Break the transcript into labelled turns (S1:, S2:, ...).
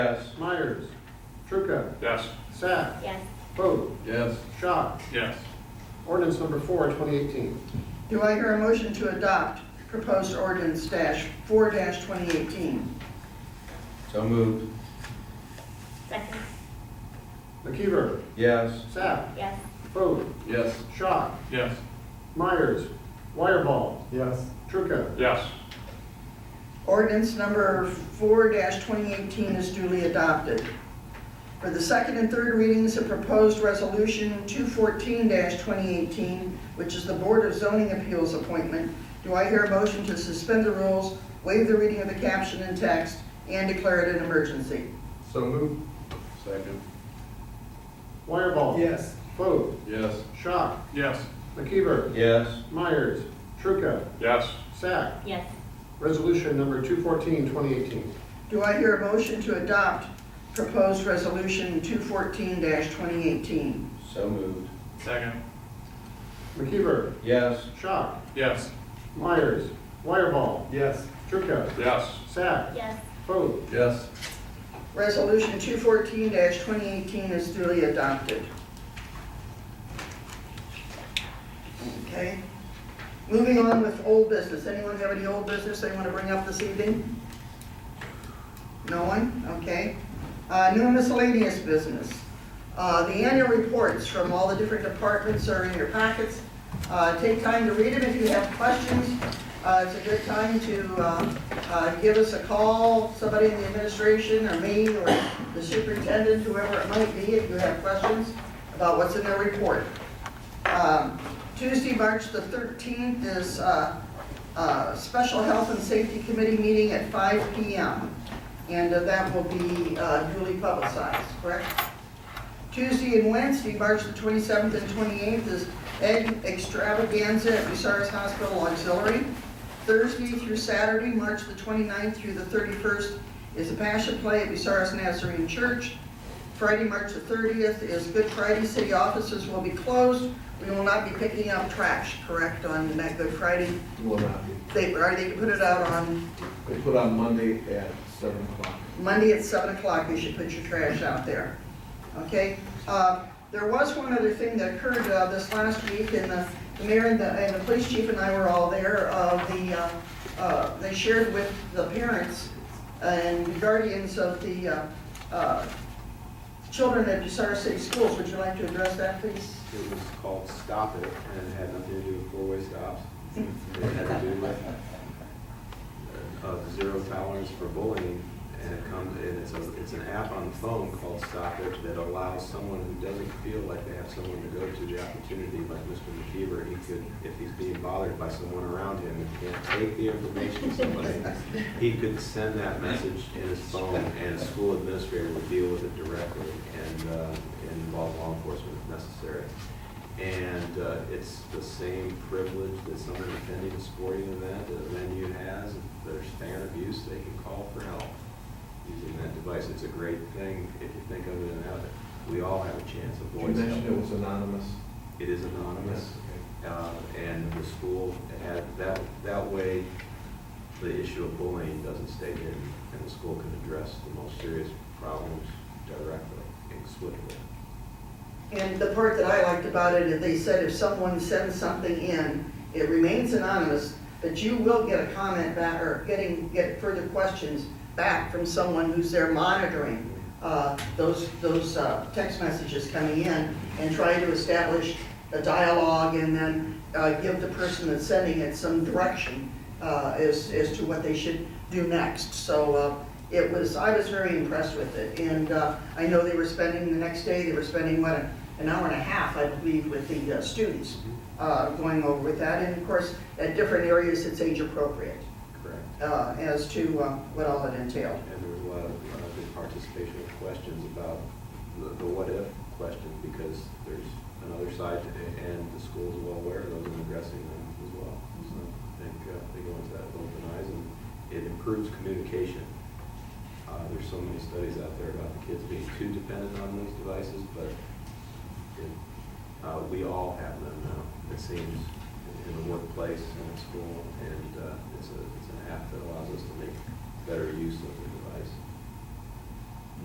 S1: Yes.
S2: Myers, Trucca,
S3: Yes.
S2: Sack,
S4: Yes,
S2: Foote,
S1: Yes.
S2: Schott.
S3: Yes.
S2: Ordinance number four, 2018.
S5: Do I hear a motion to adopt proposed ordinance dash four dash twenty eighteen?
S1: So moved.
S4: second,
S2: McKeever,
S1: Yes.
S2: Sack,
S4: yes,
S2: Foote,
S1: Yes.
S2: Schott,
S3: Yes.
S2: Myers, Wireball,
S6: Yes,
S2: Trucca.
S3: Yes.
S5: Ordinance number four twenty eighteen is duly adopted. For the second and third readings of proposed resolution two fourteen twenty eighteen, which is the Board of Zoning Appeals appointment, do I hear a motion to suspend the rules, waive the reading of the caption and text, and declare it an emergency?
S6: so moved.
S1: Second.
S2: Wireball.
S6: Yes,
S2: Foote,
S1: Yes.
S2: Schott,
S3: Yes.
S2: McKeever,
S1: Yes.
S2: Myers, Trucca,
S3: Yes.
S2: Sack.
S4: yes,
S2: Resolution number 214, 2018.
S5: Do I hear a motion to adopt proposed resolution two fourteen twenty eighteen?
S1: So moved.
S3: Second.
S2: McKeever,
S1: Yes.
S2: Schott,
S3: Yes.
S2: Myers, Wireball,
S6: yes,
S2: Trucca,
S3: Yes.
S2: Sack,
S4: yes,
S2: Foote,
S1: Yes.
S5: Resolution 214-2018 is duly adopted. Okay. Moving on with old business. Anyone have any old business they want to bring up this evening? No one? Okay. Uh, New miscellaneous business. Uh, The annual reports from all the different departments are in your packets. Uh, Take time to read them if you have questions. Uh, It's a good time to uh, uh, give us a call, somebody in the administration, or me, or the superintendent, whoever it might be, if you have questions about what's in their report. Um, Tuesday, March the 13th is uh, uh, Special Health and Safety Committee meeting at 5 PM. And uh, that will be uh, duly publicized, correct? Tuesday and Wednesday, March the 27th and 28th is Egg Extravaganza at Bucyrus Hospital Auxiliary. Thursday through Saturday, March the 29th through the 31st, is the Passion Play at Bucyrus Nazarene Church. Friday, March the 30th is Good Friday. City offices will be closed. We will not be picking up trash, correct, on that Good Friday?
S7: Will not.
S5: They, or they can put it out on
S7: They put on Monday at seven o'clock.
S5: Monday at seven o'clock, you should put your trash out there, okay? Uh, There was one other thing that occurred uh, this last week, and the the mayor and the, and the police chief and I were all there, of the, uh, uh, they shared with the parents and guardians of the uh, uh, children at Bucyrus City Schools, would you like to address that, please?
S8: It was called Stop It, and it had nothing to do with four-way stops. It had to do with uh, zero tolerance for bullying, and it comes, and it's a, it's an app on the phone called Stop It that allows someone who doesn't feel like they have someone to go to the opportunity, like Mr. McKeever, he could, if he's being bothered by someone around him, and can't take the information to somebody, he could send that message in his phone, and a school administrator would deal with it directly and, uh, and involve law enforcement if necessary. And uh, it's the same privilege that someone attending a sporting event, a venue has, if there's fan abuse, they can call for help using that device. It's a great thing if you think of it and have it. We all have a chance of
S7: You
S8: voice.
S7: mentioned it
S8: help.
S7: was anonymous.
S8: It is anonymous, uh, and the school had, that, that way, the issue of bullying doesn't stay hidden, and the school can address the most serious problems directly and swiftly.
S5: And the part that I liked about it, is they said if someone sends something in, it remains anonymous, but you will get a comment back, or getting, get further questions back from someone who's there monitoring uh, those, those uh, text messages coming in, and trying to establish a dialogue, and then uh, give the person that's sending it some direction uh, as, as to what they should do next. So uh, it was, I was very impressed with it, and uh, I know they were spending, the next day, they were spending, what, an hour and a half, I believe, with the uh, students uh, going over with that, and of course, at different areas, it's age appropriate
S8: Correct.
S5: uh, as to uh, what all it entailed.
S8: And there was a lot of uh, good participation of questions about the the what-if question, because there's another side, to it, and the school's well aware of those and addressing them as well. So I think uh, they go into that with open eyes, and it improves communication. Uh, There's so many studies out there about the kids being too dependent on these devices, but it- uh, we all have them now, it seems, in the workplace and at school, and uh, it's a, it's an app that allows us to make better use of the device.